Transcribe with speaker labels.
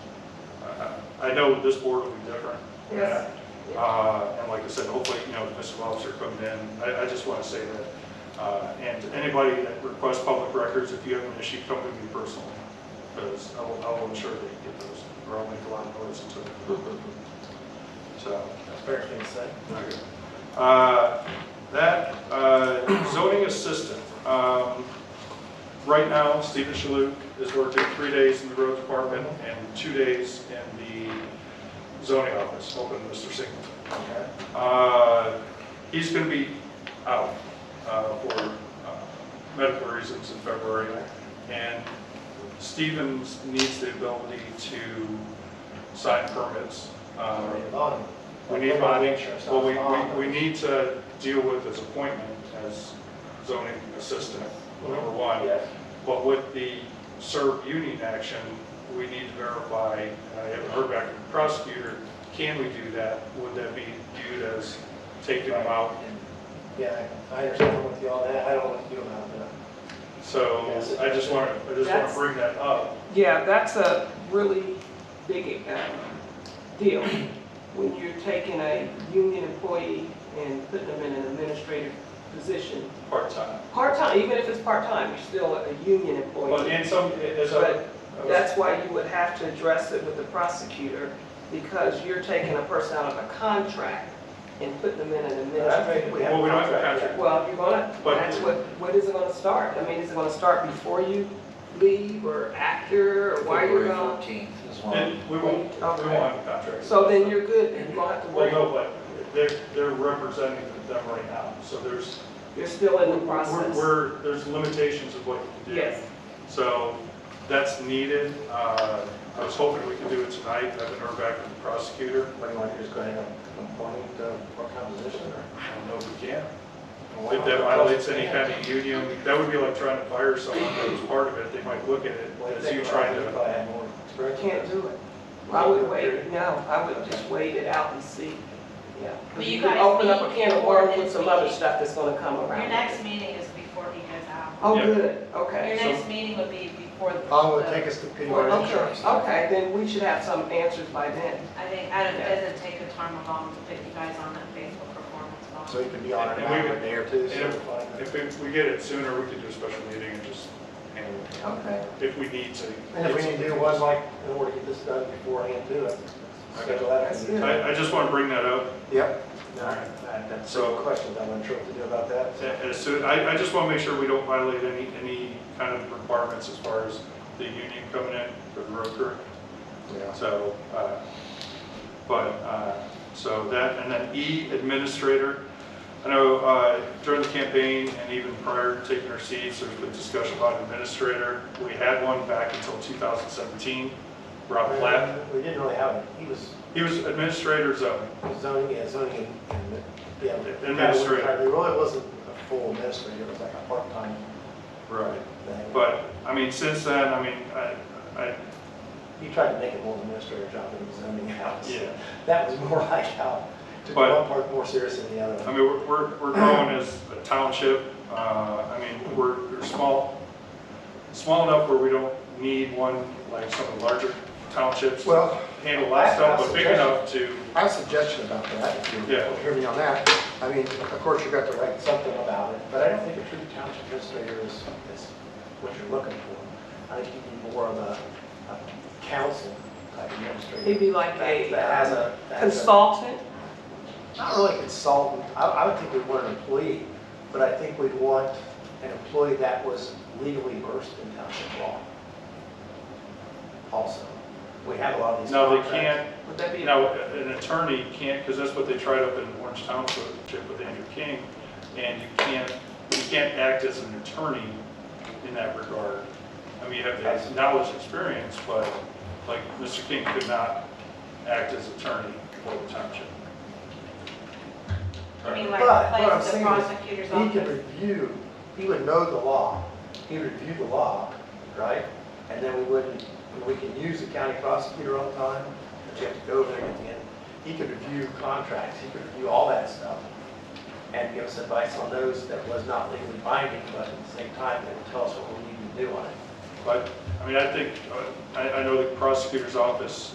Speaker 1: Uh, I know this board will be different.
Speaker 2: Yes.
Speaker 1: Uh, And like I said, hopefully, you know, the missing officer comes in, I, I just want to say that. Uh, And to anybody that requests public records, if you have an issue, come to me personally, because I will, I will ensure that you get those, or I'll make a lot of noise until. So.
Speaker 3: That's a fair thing to say.
Speaker 1: Okay. Uh, That, uh, zoning assistant, um, right now, Stephen Shalhoub is working three days in the road department and two days in the zoning office, open Mr. Singleton.
Speaker 3: Okay.
Speaker 1: Uh, He's going to be out uh, for uh, medical reasons in February, and Stevens needs the ability to sign permits.
Speaker 3: I
Speaker 1: Um,
Speaker 3: mean, bond.
Speaker 1: we need
Speaker 3: Bond
Speaker 1: money,
Speaker 3: insurance, not
Speaker 1: well, we,
Speaker 3: bond.
Speaker 1: we, we need to deal with his appointment as zoning assistant, number one.
Speaker 3: Yes.
Speaker 1: But with the SERB union action, we need to verify, and I haven't heard back from the prosecutor, can we do that? Would that be viewed as taking him out?
Speaker 3: Yeah, I understand with you all that, I don't want you to have that.
Speaker 1: So I just want to, I just want
Speaker 2: That's-
Speaker 1: to bring that up.
Speaker 2: Yeah, that's a really big uh, deal when you're taking a union employee and putting them in an administrative position.
Speaker 1: Part-time.
Speaker 2: Part-time, even if it's part-time, you're still a union
Speaker 1: But
Speaker 2: employee.
Speaker 1: in some, as I,
Speaker 2: But that's why you would have to address it with the prosecutor because you're taking a person out of a contract and putting them in an administrative.
Speaker 3: We have
Speaker 1: Well, we don't have a
Speaker 3: yet.
Speaker 2: Well, you're gonna,
Speaker 1: But-
Speaker 2: that's what, when is it gonna start? I mean, is it gonna start before you leave or after or while you're
Speaker 4: February
Speaker 2: gone?
Speaker 4: fourteenth is one.
Speaker 1: and we won't, we won't have a contract.
Speaker 2: So then you're good, then you won't have to
Speaker 1: Well,
Speaker 2: worry.
Speaker 1: no, but they're, they're representing them right now, so there's.
Speaker 2: You're still in the
Speaker 1: we're-
Speaker 2: process.
Speaker 1: We're, there's limitations of what you can do.
Speaker 2: Yes.
Speaker 1: So that's needed. Uh, I was hoping we could do it tonight. I haven't heard back from the prosecutor.
Speaker 3: What do you want, to just go ahead and appoint the what composition
Speaker 1: I
Speaker 3: or?
Speaker 1: don't know if we can. If that violates any kind of union, that would be like trying to fire someone that was part of it. They might look at it
Speaker 3: Well,
Speaker 1: as you trying
Speaker 3: If
Speaker 1: to.
Speaker 3: I had more
Speaker 2: I
Speaker 3: experience.
Speaker 2: can't do it. I would wait, no, I would just wait it out and see, yeah. 'Cause
Speaker 5: Will you
Speaker 2: could
Speaker 5: guys
Speaker 2: Open up a
Speaker 5: meet
Speaker 2: can of
Speaker 5: before
Speaker 2: worms with
Speaker 5: this
Speaker 2: some other
Speaker 5: meeting?
Speaker 2: stuff that's gonna come
Speaker 5: Your
Speaker 2: around.
Speaker 5: next meeting is before he goes out.
Speaker 2: Oh,
Speaker 1: Yeah.
Speaker 2: good,
Speaker 5: Your
Speaker 2: okay.
Speaker 5: next meeting would be before the.
Speaker 3: All it would Oh, take us to pay our
Speaker 2: Okay,
Speaker 3: insurance.
Speaker 2: okay, then we should have some answers by then.
Speaker 5: I think, I don't,
Speaker 2: Yeah.
Speaker 5: it doesn't take a time of long to put you guys on that Facebook performance bond.
Speaker 3: So you can be on it
Speaker 1: And
Speaker 3: in
Speaker 1: we
Speaker 3: a
Speaker 1: would-
Speaker 3: day or two. so
Speaker 1: and
Speaker 3: we'll find
Speaker 1: If
Speaker 3: out.
Speaker 1: we, if we get it sooner, we could do a special meeting and just handle it.
Speaker 2: Okay.
Speaker 1: If we need to.
Speaker 3: And if we need to do one, like, in order to get this done beforehand, do it. Schedule that.
Speaker 2: That's good.
Speaker 1: I, I just want to bring that up.
Speaker 3: Yep. All right, that's
Speaker 1: So-
Speaker 3: some questions I'm unsure what to do about that.
Speaker 1: As soon, I, I just want to make sure we don't violate any, any kind of requirements as far as the union coming in for the road crew.
Speaker 3: Yeah.
Speaker 1: So, uh, but, uh, so that, and then E, administrator. I know uh, during the campaign and even prior to taking our seats, there's been discussion about administrator. We had one back until 2017, Rob Platt.
Speaker 3: We didn't really have it. He was
Speaker 1: He was administrator zone.
Speaker 3: zoning, yeah, zoning and, and, yeah.
Speaker 1: Administrator.
Speaker 3: It really wasn't a full administrator, it was like a part-time
Speaker 1: Right.
Speaker 3: thing.
Speaker 1: But, I mean, since then, I mean, I, I,
Speaker 3: You tried to make it more of an administrator job than a zoning house.
Speaker 1: yeah.
Speaker 3: That was more like how, took
Speaker 1: But-
Speaker 3: one part more serious than the
Speaker 1: I
Speaker 3: other.
Speaker 1: mean, we're- we're, we're growing as a township, uh, I mean, we're, we're small, small enough where we don't need one, like some of the larger townships to
Speaker 6: Well,
Speaker 1: handle that stuff, but big enough to,
Speaker 6: I have a suggestion about that, if you
Speaker 1: Yeah.
Speaker 6: hear me on that. I mean, of course, you've got the right,
Speaker 3: Write something about it, but I don't think a true township administrator is, is what you're looking for. I think you need more of a, a council type administrator.
Speaker 2: It'd be like a
Speaker 3: That has
Speaker 5: uh,
Speaker 3: a. that has a-
Speaker 2: consultant,
Speaker 3: Not really consultant, I, I would think we'd want an employee, but I think we'd want an employee that was legally versed in township law. Also, we have a lot of these.
Speaker 1: no, they
Speaker 3: contracts.
Speaker 1: can't,
Speaker 2: would that be?
Speaker 1: now, an attorney can't, because that's what they tried up in Orange Township with Andrew King, and you can't, you can't act as an attorney in that regard. I mean, you have the knowledge, experience, but like Mr. King could not act as attorney for the township.
Speaker 5: I mean,
Speaker 3: But what
Speaker 5: like,
Speaker 3: I'm
Speaker 5: place the
Speaker 3: saying is,
Speaker 5: prosecutor's
Speaker 3: He could
Speaker 5: office.
Speaker 3: review, he would know the law, he would review the law, right? And then we wouldn't, we can use the county prosecutor all the time, but you have to go over there at the end. He could review contracts, he could review all that stuff, and give us advice on those that was not legally binding, but at the same time, they would tell us what we need to do on it.
Speaker 1: But, I mean, I think, uh, I, I know the prosecutor's office